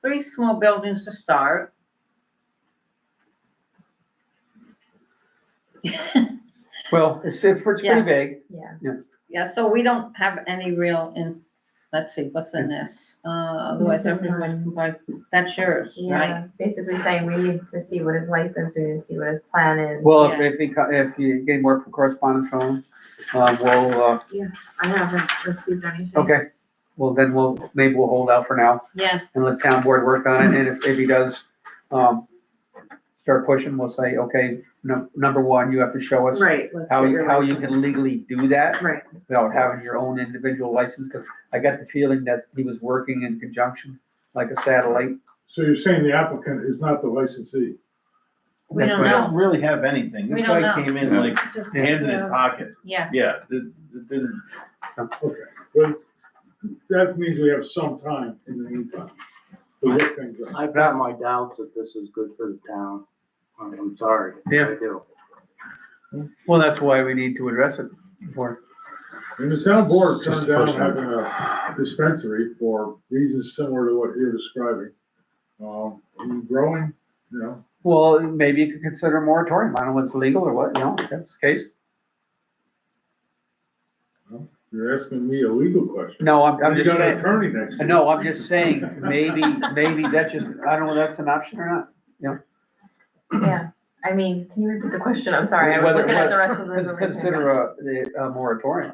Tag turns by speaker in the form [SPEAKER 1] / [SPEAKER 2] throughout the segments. [SPEAKER 1] three small buildings to start.
[SPEAKER 2] Well, it's, it's pretty
[SPEAKER 1] Yeah.
[SPEAKER 2] big.
[SPEAKER 1] Yeah, so we don't have any real in, let's see, what's in this? Uh, otherwise
[SPEAKER 3] This is
[SPEAKER 1] everyone
[SPEAKER 3] mine.
[SPEAKER 1] can buy, that's yours, right?
[SPEAKER 3] Yeah, basically saying we need to see what his license, we need to see what his plan is.
[SPEAKER 2] Well,
[SPEAKER 1] Yeah.
[SPEAKER 2] if, if you, co- if you get more correspondence from, them, uh, we'll, uh,
[SPEAKER 3] I haven't received anything.
[SPEAKER 2] okay. Well, then we'll, maybe we'll hold out for now
[SPEAKER 1] Yeah,
[SPEAKER 2] and let town board work on it. And if, if he does, um, start pushing, we'll say, okay, num- number one, you have to show us
[SPEAKER 4] Right. let's
[SPEAKER 2] how,
[SPEAKER 4] get
[SPEAKER 2] you
[SPEAKER 4] your
[SPEAKER 2] how you
[SPEAKER 4] license.
[SPEAKER 2] can legally do that
[SPEAKER 4] Right,
[SPEAKER 2] without having your own individual license. Cause I got the feeling that he was working in conjunction, like a satellite.
[SPEAKER 5] So you're saying the applicant is not the licensee?
[SPEAKER 1] we
[SPEAKER 2] That's
[SPEAKER 1] don't
[SPEAKER 6] But he
[SPEAKER 1] know,
[SPEAKER 6] doesn't really have anything.
[SPEAKER 1] We
[SPEAKER 6] This
[SPEAKER 1] don't
[SPEAKER 6] guy
[SPEAKER 1] know.
[SPEAKER 6] came in like,
[SPEAKER 3] Just-
[SPEAKER 6] hands in his
[SPEAKER 3] yeah.
[SPEAKER 6] pocket.
[SPEAKER 1] yeah,
[SPEAKER 6] Yeah, the, the, the-
[SPEAKER 5] Okay, well, that means we have some time in the meantime to look things up.
[SPEAKER 7] I've got my doubts that this is good for the town. I'm I'm sorry.
[SPEAKER 2] Yeah.
[SPEAKER 7] I do.
[SPEAKER 2] Well, that's why we need to address it before.
[SPEAKER 5] And the town board
[SPEAKER 6] Just
[SPEAKER 5] turned
[SPEAKER 6] the
[SPEAKER 5] down
[SPEAKER 6] first one.
[SPEAKER 5] having a dispensary for reasons similar to what you're describing. Um, and growing, you know,
[SPEAKER 2] Well, maybe you could consider a moratorium. I don't know what's legal or what, you know, if that's the case.
[SPEAKER 5] you're asking me a legal question.
[SPEAKER 2] No, I'm, I'm
[SPEAKER 5] You
[SPEAKER 2] just
[SPEAKER 5] got an
[SPEAKER 2] saying,
[SPEAKER 5] Attorney next to you.
[SPEAKER 2] no, I'm just saying, maybe, maybe that's just, I don't know if that's an option or not.
[SPEAKER 3] Yeah, I mean, can you repeat the question? I'm sorry, I was
[SPEAKER 2] Whether-
[SPEAKER 3] looking at the rest of the.
[SPEAKER 2] Cons-
[SPEAKER 3] information.
[SPEAKER 2] Consider a, the- a moratorium.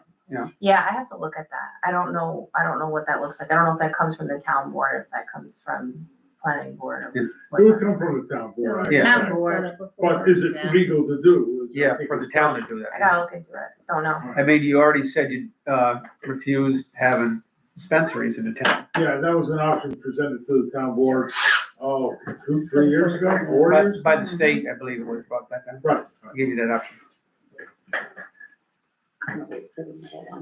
[SPEAKER 3] Yeah, I have to look at that. I don't know, I don't know what that looks like. I don't know if that comes from the town board, if that comes from planning board
[SPEAKER 2] Yeah.
[SPEAKER 3] or
[SPEAKER 5] It would
[SPEAKER 3] whatnot.
[SPEAKER 5] come from the town board, I
[SPEAKER 2] Yeah.
[SPEAKER 1] Town
[SPEAKER 5] guess.
[SPEAKER 1] board.
[SPEAKER 5] But is it
[SPEAKER 1] Yeah.
[SPEAKER 5] legal to do?
[SPEAKER 2] Yeah, for the town to do
[SPEAKER 3] I
[SPEAKER 2] that.
[SPEAKER 3] gotta look into it, don't know.
[SPEAKER 2] I mean, you already said you, uh, refused having dispensaries in the town.
[SPEAKER 5] Yeah, that was an option presented to the town board, oh, two, three years ago, four
[SPEAKER 2] By,
[SPEAKER 5] years?
[SPEAKER 2] by the state, I believe it was about that time.
[SPEAKER 5] Right.
[SPEAKER 2] I Give you that option.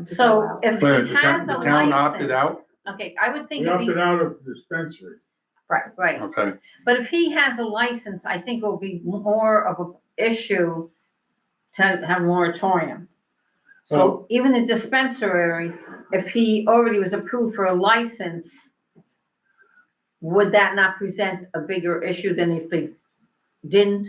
[SPEAKER 1] so if
[SPEAKER 6] But
[SPEAKER 1] it
[SPEAKER 6] the town-
[SPEAKER 1] has a
[SPEAKER 6] the
[SPEAKER 1] license.
[SPEAKER 6] town opted out?
[SPEAKER 1] Okay, I would think
[SPEAKER 5] We
[SPEAKER 1] if he,
[SPEAKER 5] opted out of the dispensary.
[SPEAKER 1] right,
[SPEAKER 6] okay.
[SPEAKER 1] But if he has a license, I think it will be more of a issue to have moratorium. So
[SPEAKER 5] Well-
[SPEAKER 1] even a dispensary, if he already was approved for a license, would that not present a bigger issue than if he didn't?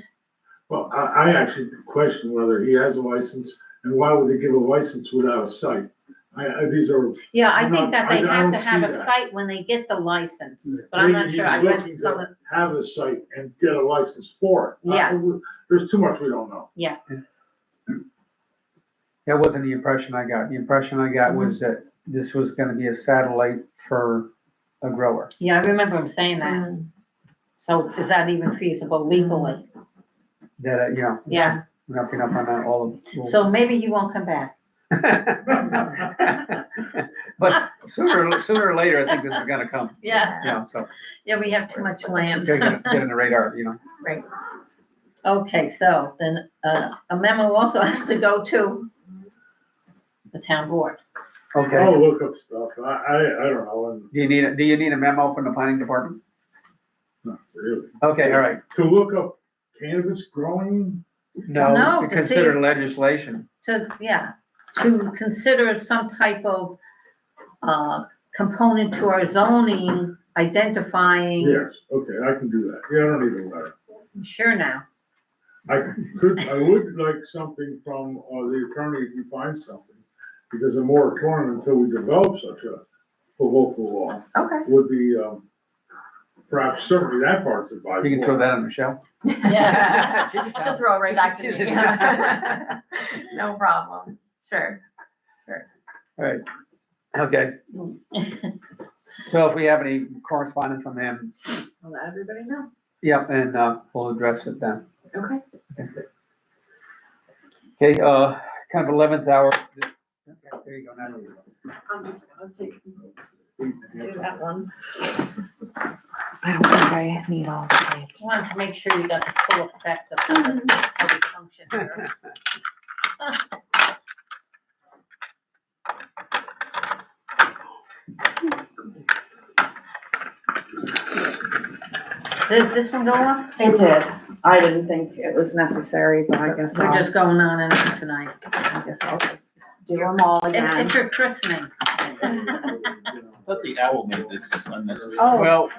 [SPEAKER 5] Well, I, I actually question whether he has a license, and why would they give a license without a site? I, I, these are.
[SPEAKER 1] Yeah, I
[SPEAKER 5] No,
[SPEAKER 1] think that
[SPEAKER 5] I-
[SPEAKER 1] they
[SPEAKER 5] I
[SPEAKER 1] have to
[SPEAKER 5] don't
[SPEAKER 1] have
[SPEAKER 5] see
[SPEAKER 1] a
[SPEAKER 5] that.
[SPEAKER 1] site when they get the license, but I'm not
[SPEAKER 5] Maybe
[SPEAKER 1] sure.
[SPEAKER 5] he's
[SPEAKER 1] I read
[SPEAKER 5] looking
[SPEAKER 1] some, of-
[SPEAKER 5] to Have a site and get a license for it. I-
[SPEAKER 1] Yeah.
[SPEAKER 5] we- There's too much we don't know.
[SPEAKER 2] That wasn't the impression I got. The impression I got was that this was gonna be a satellite for a grower.
[SPEAKER 1] yeah, I remember him saying that.
[SPEAKER 3] Mm,
[SPEAKER 1] So is that even feasible legally?
[SPEAKER 2] That, uh, you know.
[SPEAKER 1] Yeah,
[SPEAKER 2] Wrapping up on that, all of.
[SPEAKER 1] so maybe he won't come back.
[SPEAKER 2] But sooner, sooner or later, I think this is gonna come,
[SPEAKER 1] Yeah,
[SPEAKER 2] you know, so
[SPEAKER 1] yeah, we have too much land.
[SPEAKER 2] it's gonna get in the radar, you know.
[SPEAKER 3] Right,
[SPEAKER 1] Okay, so then, uh, a memo also has to go to the town board.
[SPEAKER 2] Okay,
[SPEAKER 5] I'll look up stuff. I, I, I don't know, and
[SPEAKER 2] do you need, a- do you need a memo from the planning department?
[SPEAKER 5] not really.
[SPEAKER 2] Okay, all right,
[SPEAKER 5] To look up cannabis growing,
[SPEAKER 1] No,
[SPEAKER 2] no, to
[SPEAKER 1] to see
[SPEAKER 2] consider legislation,
[SPEAKER 1] To, yeah, to consider some type of, uh, component to our zoning, identifying,
[SPEAKER 5] yes, okay, I can do that. Yeah, I don't need a letter.
[SPEAKER 1] sure now.
[SPEAKER 5] I could, I would like something from, uh, the attorney if you find something, because a moratorium until we develop such a, a local law
[SPEAKER 3] okay.
[SPEAKER 5] would be, um, perhaps certainly that part's advisable.
[SPEAKER 2] you can throw that on Michelle.
[SPEAKER 3] Yeah. She'll throw it right back to
[SPEAKER 2] She's a
[SPEAKER 3] me.
[SPEAKER 2] town.
[SPEAKER 3] No problem, sure.
[SPEAKER 2] Okay, so if we have any correspondence from him,
[SPEAKER 4] I'll let everybody know.
[SPEAKER 2] yep, and, uh, we'll address it then.
[SPEAKER 4] Okay.
[SPEAKER 2] Okay, uh, kind of eleventh hour. Okay, There you go, now you go.
[SPEAKER 4] I'm just gonna take, do
[SPEAKER 5] that.
[SPEAKER 4] that one.
[SPEAKER 3] I don't think I need all the tapes.
[SPEAKER 1] Wanted to make sure you got the full effect of the, of the function here. Did this one go up?
[SPEAKER 4] It did. I didn't think it was necessary, but I guess
[SPEAKER 1] We're
[SPEAKER 4] I'll,
[SPEAKER 1] just going on and on tonight.
[SPEAKER 4] I guess I'll just do them all
[SPEAKER 1] It-
[SPEAKER 4] again.
[SPEAKER 1] It's your christening.
[SPEAKER 6] I thought the owl made this unnecessary.
[SPEAKER 4] Oh,
[SPEAKER 2] Well,